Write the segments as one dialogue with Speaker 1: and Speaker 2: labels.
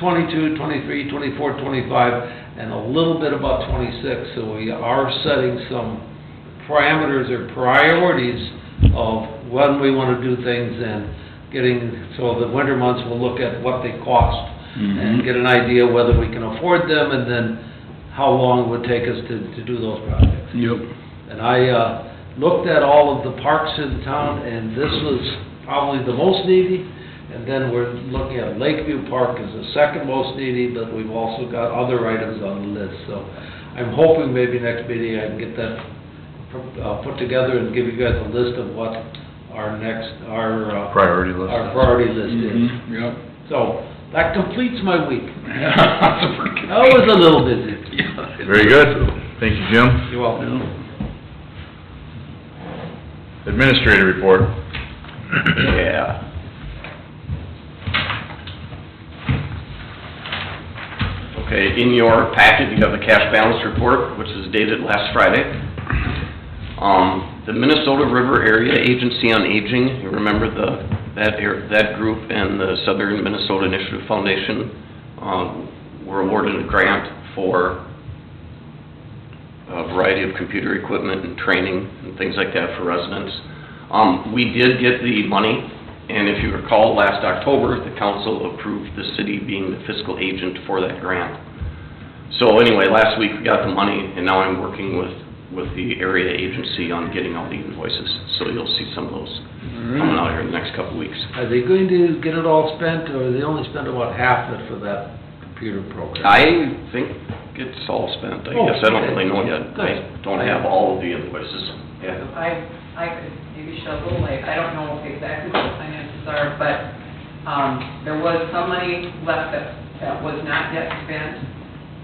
Speaker 1: 22, 23, 24, 25, and a little bit about 26. So we are setting some parameters or priorities of when we want to do things and getting, so the winter months, we'll look at what they cost and
Speaker 2: Mhm.
Speaker 1: get an idea whether we can afford them and then how long it would take us to, to do those projects.
Speaker 2: Yep.
Speaker 1: And I, uh, looked at all of the parks in town, and this was probably the most needy. And then we're looking at Lakeview Park as the second most needy, but we've also got other items on the list. So I'm hoping maybe next meeting I can get that, uh, put together and give you guys a list of what our next, our, uh,
Speaker 3: Priority list.
Speaker 1: our priority list is.
Speaker 2: Mhm, Yep.
Speaker 1: So, that completes my week.
Speaker 2: That's pretty good.
Speaker 1: I was a little busy.
Speaker 2: Yeah.
Speaker 3: Very good. Thank you, Jim.
Speaker 1: You're welcome.
Speaker 2: Yeah.
Speaker 3: Administrator report.
Speaker 2: Yeah.
Speaker 4: Okay, in your packet, you have the cash balance report, which is dated last Friday. Um, the Minnesota River Area Agency on Aging, you remember the, that, air- that group and the Southern Minnesota Initiative Foundation, um, were awarded a grant for a variety of computer equipment and training and things like that for residents. Um, we did get the money, and if you recall, last October, the council approved the city being the fiscal agent for that grant. So anyway, last week we got the money, and now I'm working with, with the area agency on getting all the invoices. So you'll see some of those coming out here in the next couple of weeks.
Speaker 1: Are they going to get it all spent, or they only spent about half of it for that computer program?
Speaker 4: I think it's all spent, I guess, I don't really know yet.
Speaker 1: Good.
Speaker 4: I don't have all of the invoices. Yeah.
Speaker 5: I, I could maybe shed a little light, I don't know exactly what the finances are, but, um, there was some money left that, that was not yet spent,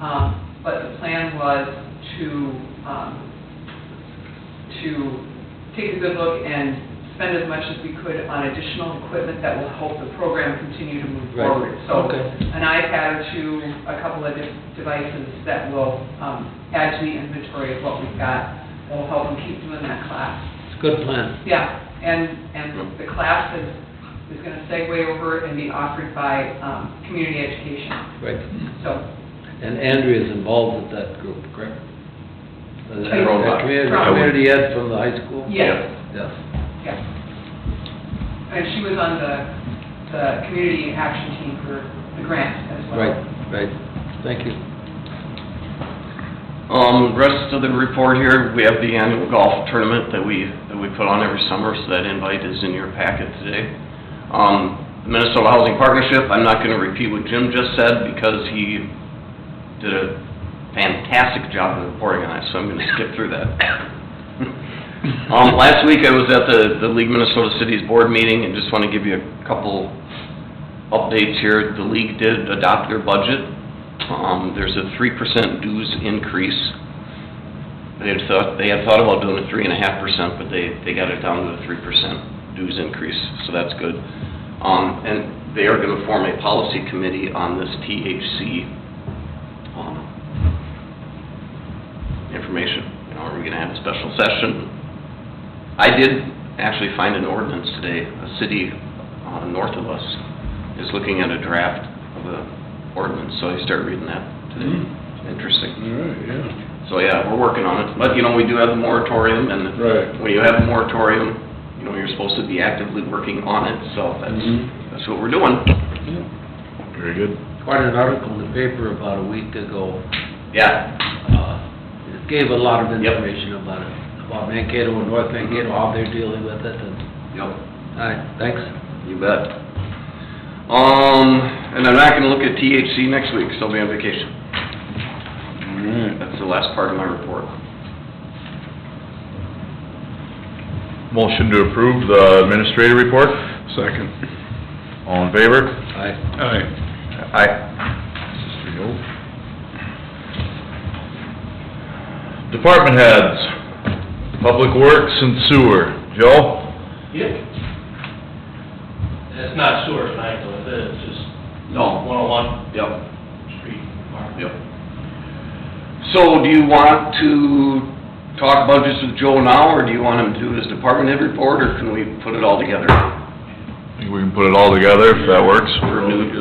Speaker 5: um, but the plan was to, um, to take a good look and spend as much as we could on additional equipment that will help the program continue to move
Speaker 1: Right.
Speaker 5: forward. So,
Speaker 1: Okay.
Speaker 5: an iPad or two, a couple of di- devices that will, um, add to the inventory of what we've got, that will help them keep doing that class.
Speaker 1: It's a good plan.
Speaker 5: Yeah, and, and the class is, is gonna segue over and be offered by, um, community education,
Speaker 1: Right.
Speaker 5: so.
Speaker 1: And Andrea's involved with that group, correct? Uh, the-
Speaker 5: From-
Speaker 1: the Community,
Speaker 5: from-
Speaker 1: community ed from the high school?
Speaker 5: Yes,
Speaker 1: Yes.
Speaker 5: yes. And she was on the, the community action team for the grant as well.
Speaker 1: Right, right. Thank you.
Speaker 4: Um, rest of the report here, we have the annual golf tournament that we, that we put on every summer, so that invite is in your packet today. Um, Minnesota Housing Partnership, I'm not gonna repeat what Jim just said, because he did a fantastic job of reporting on it, so I'm gonna skip through that. Um, last week I was at the, the League Minnesota Cities Board meeting, and just wanna give you a couple updates here. The league did adopt their budget, um, there's a three percent dues increase. They had thought, they had thought about doing a three and a half percent, but they, they got it down to a three percent dues increase, so that's good. Um, and they are gonna form a policy committee on this THC, um, information. You know, are we gonna have a special session? I did actually find an ordinance today, a city, uh, north of us is looking at a draft of a ordinance, so I started reading that today.
Speaker 2: Mhm.
Speaker 4: Interesting.
Speaker 2: All right, yeah.
Speaker 4: So, yeah, we're working on it, but, you know, we do have a moratorium, and
Speaker 2: Right.
Speaker 4: when you have a moratorium, you know, you're supposed to be actively working on it, so that's,
Speaker 2: Mhm.
Speaker 4: that's what we're doing.
Speaker 3: Very good.
Speaker 1: Quite an article in the paper about a week ago.
Speaker 4: Yeah,
Speaker 1: Uh, It gave a lot of
Speaker 4: Yep.
Speaker 1: information about it, about Mankato and North Mankato, how they're dealing with it. and-
Speaker 4: yep.
Speaker 1: All right, thanks.
Speaker 4: You bet. Um, and I'm not gonna look at THC next week, so I'll be on vacation.
Speaker 2: All right.
Speaker 4: That's the last part of my report.
Speaker 3: Motion to approve the administrator report.
Speaker 2: Second.
Speaker 3: All in favor?
Speaker 1: Bye.
Speaker 2: Aye.
Speaker 3: Aye. This is three oh. Department heads, Public Works and Sewer. Joe?
Speaker 6: Yep. That's not sewer tonight, though, is it? It's just
Speaker 4: No.
Speaker 6: 101
Speaker 4: Yep.
Speaker 6: Street.
Speaker 4: Yep. So do you want to talk budgets with Joe now, or do you want him to do his department head report, or can we put it all together?
Speaker 3: I think we can put it all together if that works.
Speaker 4: For new,